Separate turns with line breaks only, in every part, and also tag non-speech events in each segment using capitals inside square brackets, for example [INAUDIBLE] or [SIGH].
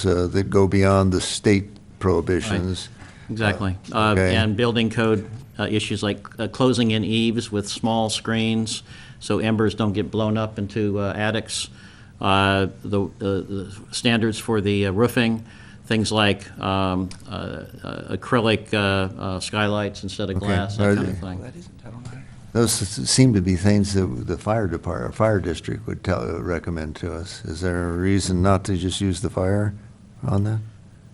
prohibitions uh, that go beyond the state prohibitions.
Exactly. Uh,
okay.
And building code uh, issues like uh, closing in eaves with small screens so embers don't get blown up into uh, attics. Uh, The uh, the standards for the uh, roofing, things like um, uh, uh, acrylic uh, uh, skylights instead of
Okay.
glass, that kind of
Alright.
thing.
Those s- seem to be things that the fire department, fire district would tell, recommend to us. Is there a reason not to just use the fire on that?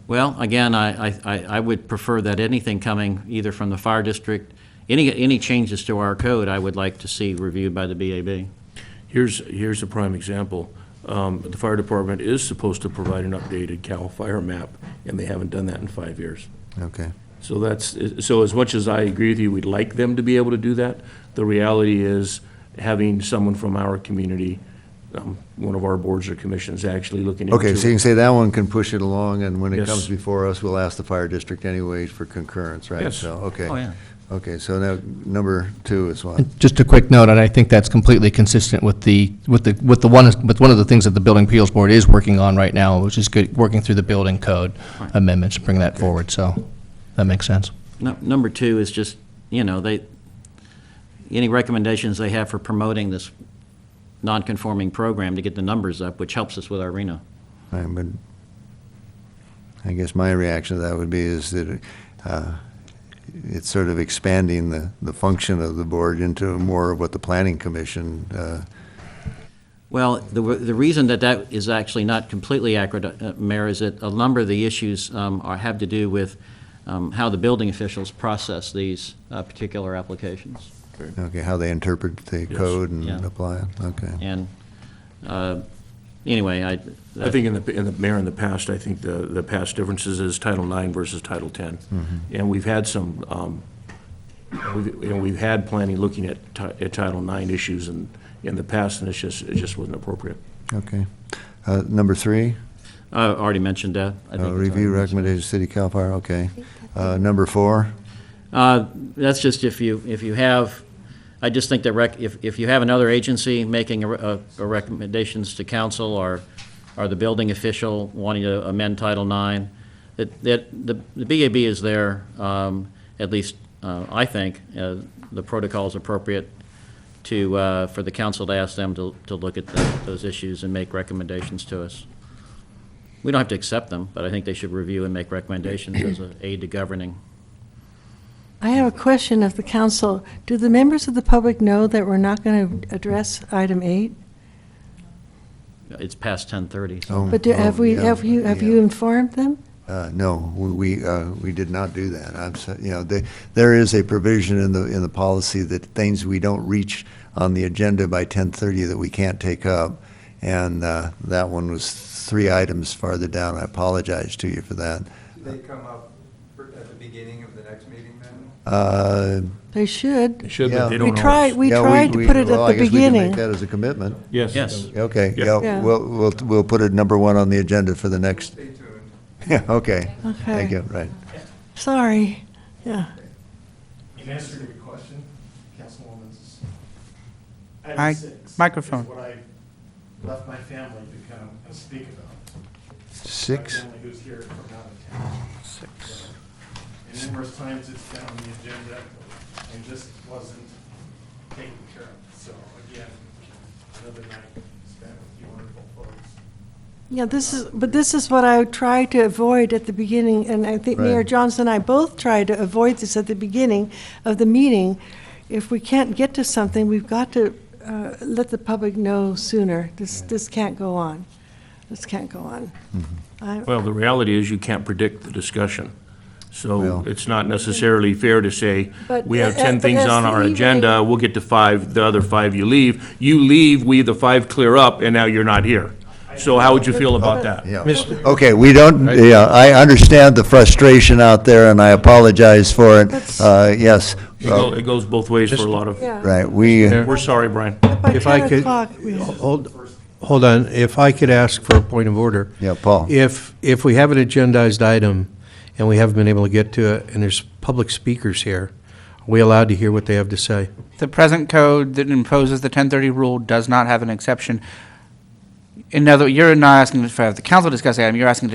Well, again, I, I- I, I would prefer that anything coming either from the fire district, any, any changes to our code, I would like to see reviewed by the BAB.
Here's, here's a prime example. Um, The fire department is supposed to provide an updated CAL FIRE map, and they haven't done that in five years.
Okay.
So that's, so as much as I agree with you, we'd like them to be able to do that, the reality is having someone from our community, um, one of our boards or commissions actually looking into.
Okay, so you can say that one can push it along, and when it
Yes.
comes before us, we'll ask the fire district anyway for concurrence, right?
Yes.
So, okay.
Oh, yeah.
Okay, so now, number two is what?
Just a quick note, and I think that's completely consistent with the, with the, with the one, with one of the things that the Building Appeals Board is working on right now, which is good, working through the building code amendments, bring that forward, so that makes sense.
Nu- Number two is just, you know, they, any recommendations they have for promoting this non-conforming program to get the numbers up, which helps us with our RENA.
I would, I guess my reaction to that would be is that uh, it's sort of expanding the, the function of the board into more of what the planning commission, uh,
Well, the, the reason that that is actually not completely accurate, uh, Mayor, is that a number of the issues um, are, have to do with um, how the building officials process these uh, particular applications.
okay, how they interpret the code and
Yeah.
apply it, okay.
And, uh, anyway, I.
I think in the, in the, Mayor, in the past, I think the, the past differences is Title IX versus Title X. And we've had some, um, we've- and we've had planning looking at, ti- at Title IX issues in, in the past, and it's just, it just wasn't appropriate.
Okay. Uh, Number three,
I already mentioned that. I think
uh,
it's
review
already-
recommendation, city CAL FIRE, okay. Uh, Number four,
Uh, That's just if you, if you have, I just think that rec, if, if you have another agency making a re- a- a recommendations to council or, or the building official wanting to amend Title IX, that, that, the the BAB is there, um, at least, uh, I think, uh, the protocol is appropriate to, uh, for the council to ask them to, to look at tho- those issues and make recommendations to us. We don't have to accept them, but I think they should review and make recommendations as an aid to governing.
I have a question of the council. Do the members of the public know that we're not going to address item eight?
It's past 10:30. so-
Oh,
But do-
oh,
have we,
yeah,
have you, have
yeah.
you informed them?
Uh, No, we, we, uh, we did not do that. I'm, so- you know, there, there is a provision in the, in the policy that things we don't reach on the agenda by 10:30 that we can't take up, and uh, that one was three items farther down. I apologize to you for that.
Do they come up for- at the beginning of the next meeting then?
Uh,
They should.
Should,
but they Yeah.
We tried, we
yeah,
tried to
we-
put it
well, I
at the
guess we can make
beginning.
that as a commitment.
Yes.
Yes.
Okay,
Yeah.
yeah,
Yeah.
we'll, we'll, we'll put it number one on the agenda for the next, [LAUGHS]
Stay tuned.
okay. Thank
Okay.
you, right.
Sorry. Yeah.
In answer to your question, Councilwoman's. item
Hi,
six is
microphone.
what I left my family to come and speak about.
Six,
My family who's here from out of town. Six. And numerous times it's been on the agenda and just wasn't taken care of. So again, another night spent with you wonderful folks.
Yeah, this is, but this is what I tried to avoid at the beginning, and I think Mayor
Right.
Johnson and I both tried to avoid this at the beginning of the meeting. If we can't get to something, we've got to uh, let the public know sooner. This, this can't go on. This can't go on. I-
Well, the reality is you can't predict the discussion. So
Well-
it's not necessarily fair to say,
But uh,
we have
a-
10
but
things
as
on
the
our
evening-
agenda, we'll get to five, the other five you leave. You leave, we, the five, clear up, and now you're not here. So how would you feel about that?
Yeah. Okay, we don't, yeah, I understand the frustration out there, and I apologize for it. Uh, Yes,
It go- it goes both ways for a lot of,
Yeah.
right, we,
we're sorry, Brian.
By
If I
10
could-
o'clock, we-
Oh,
Hold, hold on, if I could ask for a point of order.
Yeah, Paul.
If, if we have an agendized item and we haven't been able to get to it, and there's public speakers here, are we allowed to hear what they have to say?
The present code that imposes the 1030 rule does not have an exception. In other, you're not asking for the council to discuss the item, you're asking to